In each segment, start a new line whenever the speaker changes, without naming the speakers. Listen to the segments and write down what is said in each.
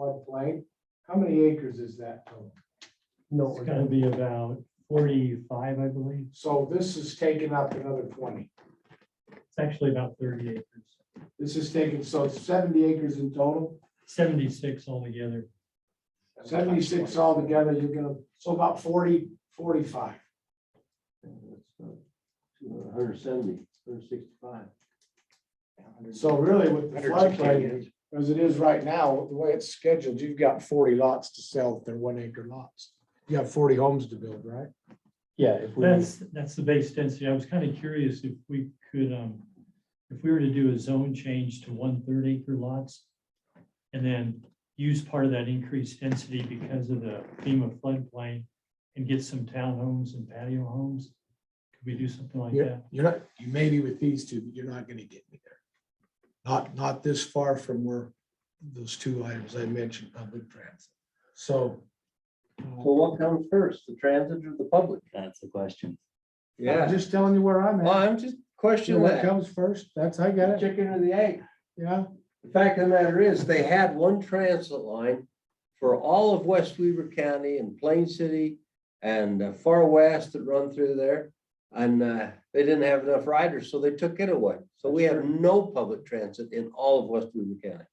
floodplain. How many acres is that total?
No,
It's gonna be about forty-five, I believe.
So this is taking up another twenty.
It's actually about thirty acres,
This is taking, so it's seventy acres in total,
seventy-six altogether.
seventy-six altogether, you're gonna, so about 40, 45.
Hundred seventy, hundred sixty-five.
So really with the floodplain, as it is right now, the way it's scheduled, you've got forty lots to sell, if they're one acre lots. You have forty homes to build, right?
Yeah, if we,
That's, that's the base density. I was kind of curious if we could, um, if we were to do a zone change to one-third acre lots and then use part of that increased density because of the FEMA floodplain and get some townhomes and patio homes. Could we do something like
Yeah,
that?
you're not, you may be with these two, but you're not gonna get me there. Not, not this far from where those two items I mentioned, public transit. So.
so what comes first, the transit or the public?
That's the question.
I'm Just telling you where I'm
Well,
at.
I'm
You
just
know
questioning
What
that.
comes first, that's, I got it,
Chicken or the egg?
yeah.
The fact of the matter is, they had one transit line for all of West Weaver County and Plain City and uh, Far West that run through there. And uh, they didn't have enough riders, so they took it away. So we have no public transit in all of West Weaver County.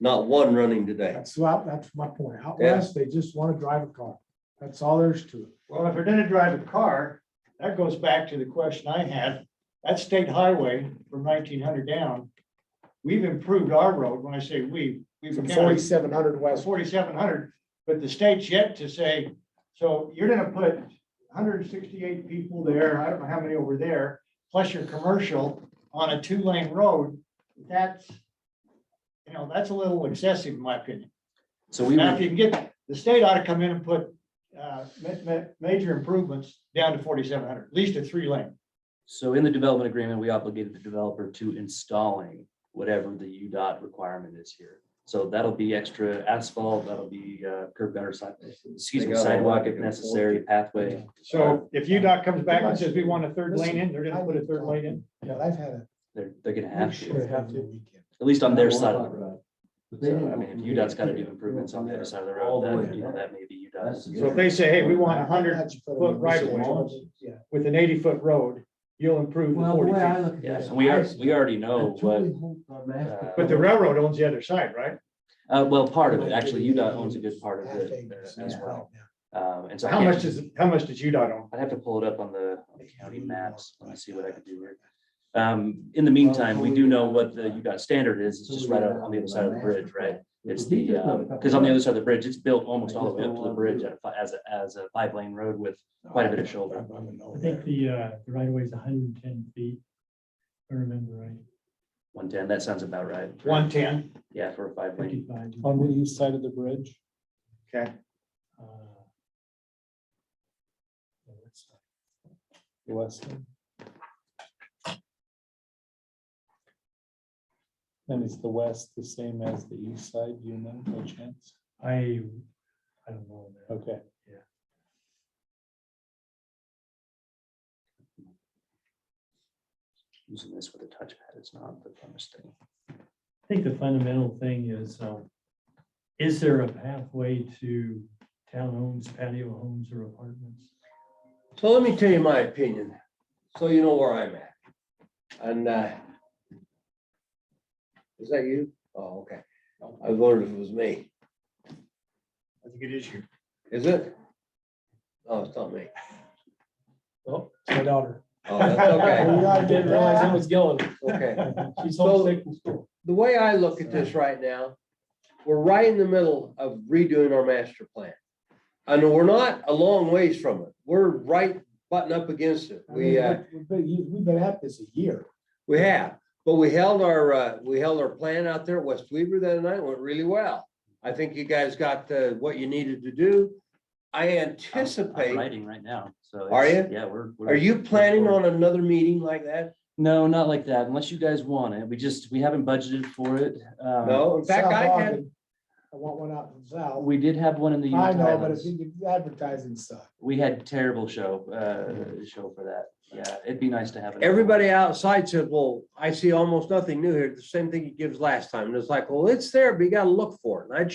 Not one running today.
That's what, that's my point. Out
Yeah.
west, they just wanna drive a car. That's all there is to it.
Well, if we're gonna drive a car, that goes back to the question I had. That state highway from nineteen hundred down, we've improved our road. When I say we, we've
From
counted
forty-seven hundred west.
forty-seven hundred, but the state's yet to say, so you're gonna put hundred and sixty-eight people there, I don't know how many over there, plus your commercial on a two-lane road. That's, you know, that's a little excessive in my opinion.
So we
Now,
would,
if you can get, the state ought to come in and put, uh, ma- ma- major improvements down to forty-seven hundred, at least a three lane.
so in the development agreement, we obligated the developer to installing whatever the UDOT requirement is here. So that'll be extra asphalt, that'll be uh, curb gutter side, excuse me,
got all
sidewalk
that
if
to go
necessary, pathway.
So if UDOT comes back and says we want a third lane in, they're gonna put a third lane in.
Yeah, I've had
They're, they're gonna
a.
have to,
Have to weekend.
at least on their side of the road.
But they
So,
didn't
I
go
mean, if
from
UDOT's
here
gotta
to
do
here.
improvements on the other side of the
All
road,
the
that,
way
you know,
down.
that may be
That's
UDOT.
the
So if they say, hey, we want a hundred
Had you put it
foot
in
right
the
of way
zone, Yeah.
with an eighty-foot road, you'll improve to
Well, the
forty
way I
feet.
look at
Yes,
this.
and we
I-
are, we already know
I
what,
truly hope our master-
uh,
But the railroad owns the other side, right?
uh, well, part of it, actually, UDOT owns a good part of
Half
it
acres,
as
yeah.
well. Um, and so. I
How
can't-
much does, how much does UDOT own?
I'd have to pull it up on the on the county maps. Let me see what I can do here. Um, in the meantime, we do know what the UDOT standard is. It's just right on on the other side of the bridge, right? It's the, because on the other side of the bridge, it's built almost all the way up to the bridge at a fi- as a, as a five lane road with quite a bit of shoulder.
I think the, uh, the right of way is hundred and ten feet. if I remember right,
One ten, that sounds about right.
One-ten.
Yeah, for a five lane.
fifty-five.
On the east side of the bridge.
Okay.
uh, yeah, that's-
the west end. And is the west the same as the east side, do you know, by chance?
I, I don't know. man.
Okay.
Using this with a touchpad is not the funnest thing.
I think the fundamental thing is, um, is there a pathway to townhomes, patio homes or apartments?
So let me tell you my opinion, so you know where I'm at. And uh, is that you? Oh, okay. I wondered if it was me.
I think it is you.
Is it? Oh, it's not me.
My daughter.
Oh, that's
uh,
okay,
I didn't realize it was going.
okay.
She's
So-
homesick from school.
The way I look at this right now, we're right in the middle of redoing our master plan. And we're not a long ways from it. We're right button up against it.
I mean,
We, uh,
We've been, we've been at this a year.
we have, but we held our, uh, we held our plan out there at West Weaver that night, It went really well. I think you guys got, uh, what you needed to do. I
I'm- I'm
anticipate,
Writing right now, so.
Are
it's- Yeah, we're. we're-
are you planning on another meeting like that?
No, not like that, unless you guys want it. We just, we haven't budgeted for it. Um,
No, in fact,
South
I had.
Ogden. I want one out in South.
We did have one in the.
I
Utah
know, but if
Highlands.
you advertising stuff.
We had terrible show, uh, show for that. Yeah, it'd be nice to have. it.
Everybody outside says, well, I see almost nothing new here. The same thing he gives last time. And it's like, well, it's there, but you gotta look for it. And I'd